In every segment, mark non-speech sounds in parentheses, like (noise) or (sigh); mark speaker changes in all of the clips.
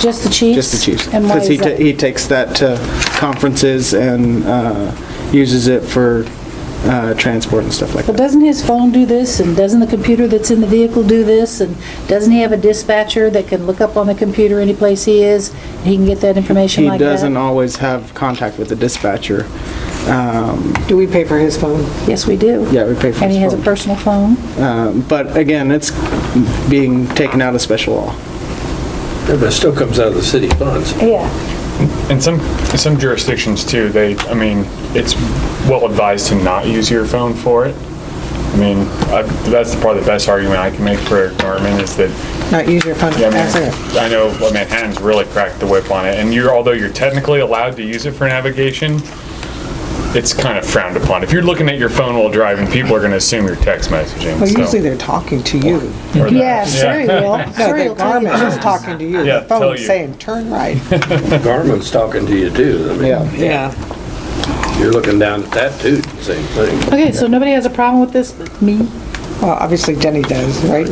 Speaker 1: Just the chiefs?
Speaker 2: Just the chiefs.
Speaker 1: And why
Speaker 2: Because he
Speaker 1: is
Speaker 2: ta-
Speaker 1: that?
Speaker 2: he takes that to conferences and uh, uses it for uh, transport and stuff like
Speaker 1: But
Speaker 2: that.
Speaker 1: doesn't his phone do this, and doesn't the computer that's in the vehicle do this, and doesn't he have a dispatcher that can look up on the computer any place he is, and he can get that information
Speaker 2: He
Speaker 1: like that?
Speaker 2: doesn't always have contact with the dispatcher.
Speaker 3: Do we pay for his phone?
Speaker 1: Yes, we do.
Speaker 2: Yeah, we pay for
Speaker 1: And he has
Speaker 2: his
Speaker 1: a
Speaker 2: phone.
Speaker 1: personal phone?
Speaker 2: Um, But again, it's being taken out of special law.
Speaker 4: Yeah, but it still comes out of the city funds.
Speaker 1: Yeah.
Speaker 5: In some, in some jurisdictions too, they, I mean, it's well advised to not use your phone for it. I mean, I- that's probably the best argument I can make for Norman is that,
Speaker 3: Not use your phone?
Speaker 5: yeah, I
Speaker 3: That's it.
Speaker 5: mean, I know well, Manhattan's really cracked the whip on it. And you're, although you're technically allowed to use it for navigation, it's kind of frowned upon. If you're looking at your phone while driving, people are going to assume you're text messaging.
Speaker 3: Well,
Speaker 5: so-
Speaker 3: usually they're talking to you.
Speaker 5: or that.
Speaker 1: Yeah, (laughs) sure he will.
Speaker 3: No,
Speaker 1: Sure
Speaker 3: the
Speaker 1: he'll tell you
Speaker 3: Garmin is
Speaker 1: that.
Speaker 3: talking to you.
Speaker 5: Yeah,
Speaker 3: The
Speaker 5: tell
Speaker 3: phone's
Speaker 5: you.
Speaker 3: saying,
Speaker 5: (laughs)
Speaker 3: turn right.
Speaker 4: Garmin's talking to you too. I mean,
Speaker 2: Yeah.
Speaker 3: Yeah.
Speaker 4: you're looking down at that too, same thing.
Speaker 1: Okay, so nobody has a problem with this, but me?
Speaker 3: Well, obviously Jenny does, right?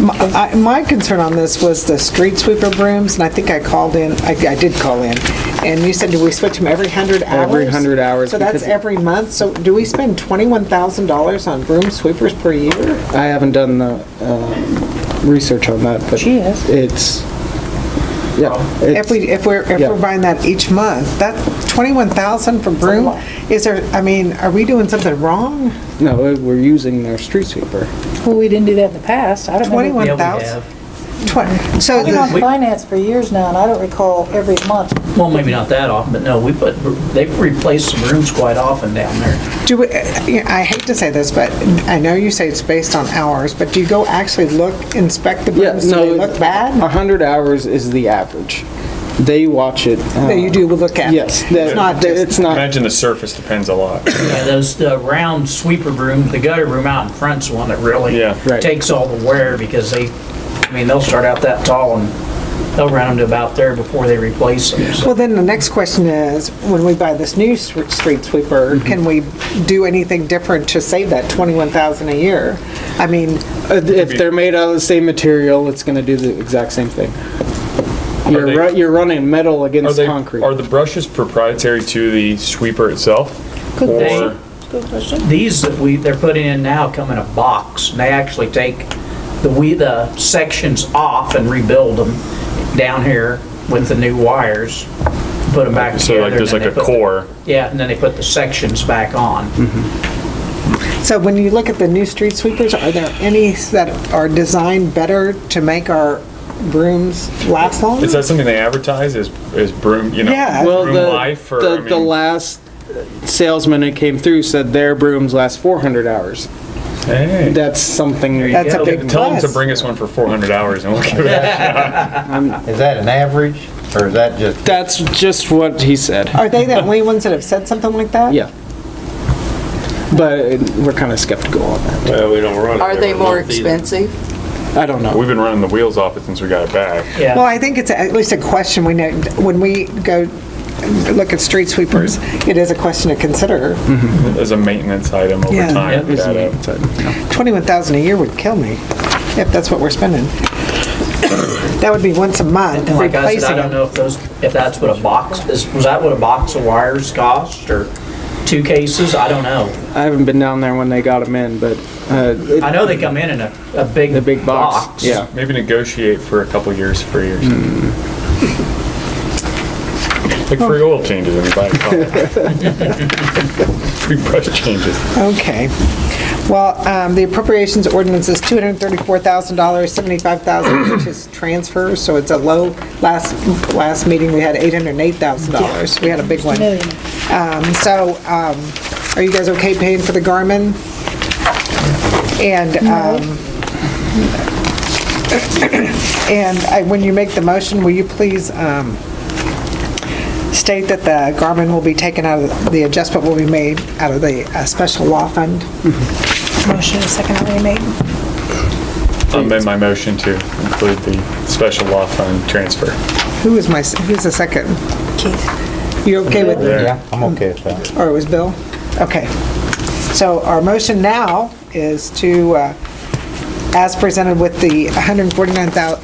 Speaker 3: My- I- My concern on this was the street sweeper brooms, and I think I called in, I I did call in, and you said, do we switch them every 100 hours?
Speaker 2: Every 100 hours,
Speaker 3: So that's
Speaker 2: because-
Speaker 3: every month, so do we spend $21,000 on broom sweepers per year?
Speaker 2: I haven't done the um, research on that, but.
Speaker 1: She has.
Speaker 2: It's, yeah.
Speaker 3: If we, if we're, if
Speaker 2: Yeah.
Speaker 3: we're buying that each month, that 21,000 for broom, is there, I mean, are we doing something wrong?
Speaker 2: it's- No, we're using their street sweeper.
Speaker 1: Well, we didn't do that in the past. I don't remember.
Speaker 3: 21,000? Twen- So
Speaker 1: I've been on
Speaker 3: the-
Speaker 1: finance for years now, and I don't recall every month.
Speaker 6: Well, maybe not that often, but no, we put, they've replaced some rooms quite often down there.
Speaker 3: do, we- yeah, I hate to say this, but I know you say it's based on hours, but do you go actually look, inspect the
Speaker 2: Yeah,
Speaker 3: brooms? Do
Speaker 2: no. Uh-huh.
Speaker 3: they look bad?
Speaker 2: 100 hours is the average. They watch it.
Speaker 3: That you
Speaker 2: uh,
Speaker 3: do look at?
Speaker 2: Yes.
Speaker 3: It's not just,
Speaker 2: It's not,
Speaker 5: Imagine the surface depends a lot.
Speaker 6: Yeah, those, the round sweeper room, the gutter room out in front's the one that really
Speaker 5: Yeah,
Speaker 2: right.
Speaker 6: takes all the wear because they, I mean, they'll start out that tall and they'll round to about there before they replace them. so.
Speaker 3: well, then the next question is, when we buy this new s- street sweeper,
Speaker 2: Mm-hmm.
Speaker 3: can we do anything different to save that 21,000 a year? I mean,
Speaker 2: uh, if they're made out of the same material, it's gonna do the exact same thing. You're,
Speaker 5: they-
Speaker 2: ru- you're running metal
Speaker 5: Are
Speaker 2: against
Speaker 5: they,
Speaker 2: concrete.
Speaker 5: are the brushes proprietary to the sweeper itself? Could
Speaker 6: be. These that we, they're putting in now come in a box, and they actually take the, we, the sections off and rebuild them down here with the new wires, put them back
Speaker 5: So
Speaker 6: together.
Speaker 5: like,
Speaker 6: and
Speaker 5: there's
Speaker 6: then
Speaker 5: like a
Speaker 6: they put the-
Speaker 5: core.
Speaker 6: Yeah, and then they put the sections back on.
Speaker 2: Mm-hmm.
Speaker 3: So when you look at the new street sweepers, are there any that are designed better to make our brooms last longer?
Speaker 5: Is that something they advertise as, as broom, you know?
Speaker 3: Yeah.
Speaker 2: Well,
Speaker 5: Broom
Speaker 2: the,
Speaker 5: life or, I
Speaker 2: the, the
Speaker 5: mean-
Speaker 2: last salesman that came through said their brooms last 400 hours.
Speaker 5: Hey.
Speaker 2: That's something.
Speaker 3: That's a
Speaker 6: Yeah,
Speaker 3: big
Speaker 5: Tell them to
Speaker 3: plus.
Speaker 5: bring us one for 400 hours and we'll give it a
Speaker 7: Is that an average, or is that just?
Speaker 2: That's just what he said.
Speaker 3: Are they the only ones that have said something like that?
Speaker 2: Yeah. But we're kind of skeptical on that.
Speaker 4: Well, we don't run it.
Speaker 8: Are they
Speaker 4: every
Speaker 8: more
Speaker 4: month either.
Speaker 8: expensive?
Speaker 2: I don't know.
Speaker 5: We've been running the wheels off it since we got it back.
Speaker 6: Yeah.
Speaker 3: Well, I think it's at least a question we know, when we go look at street sweepers, it is a question to consider.
Speaker 5: As a maintenance item over
Speaker 3: Yeah.
Speaker 5: time.
Speaker 6: Yeah.
Speaker 5: we gotta-
Speaker 3: Twenty-one thousand a year would kill me, if that's what we're spending. That would be once a month,
Speaker 6: And like I said,
Speaker 3: replacing
Speaker 6: I don't
Speaker 3: them.
Speaker 6: know if those, if that's what a box is, was that what a box of wires cost or two cases? I don't know.
Speaker 2: I haven't been down there when they got them in, but uh, it-
Speaker 6: I know they come in in a, a big.
Speaker 2: the big box. Yeah.
Speaker 5: Maybe negotiate for a couple years, free or something. Like free oil changes when you buy a car. (laughs) Free brush changes.
Speaker 3: Okay. Well, um, the appropriations ordinance is $234,000, 75,000 which is transfers, so it's a low. Last, last meeting, we had $808,000. We had a big one.
Speaker 1: Million.
Speaker 3: Um, So um, are you guys okay paying for the Garmin? And, um, and I- when you make the motion, will you please um, state that the Garmin will be taken out of, the adjustment will be made out of the uh, special law fund?
Speaker 9: Mm-hmm. Motion is second already made.
Speaker 5: I amend my motion to include the special law fund transfer.
Speaker 3: Who is my, s- who's the second?
Speaker 9: Keith,
Speaker 3: You okay with,
Speaker 7: Yeah, I'm okay with that.
Speaker 3: or it was Bill? Okay. So our motion now is to, uh, as presented with the 149,000,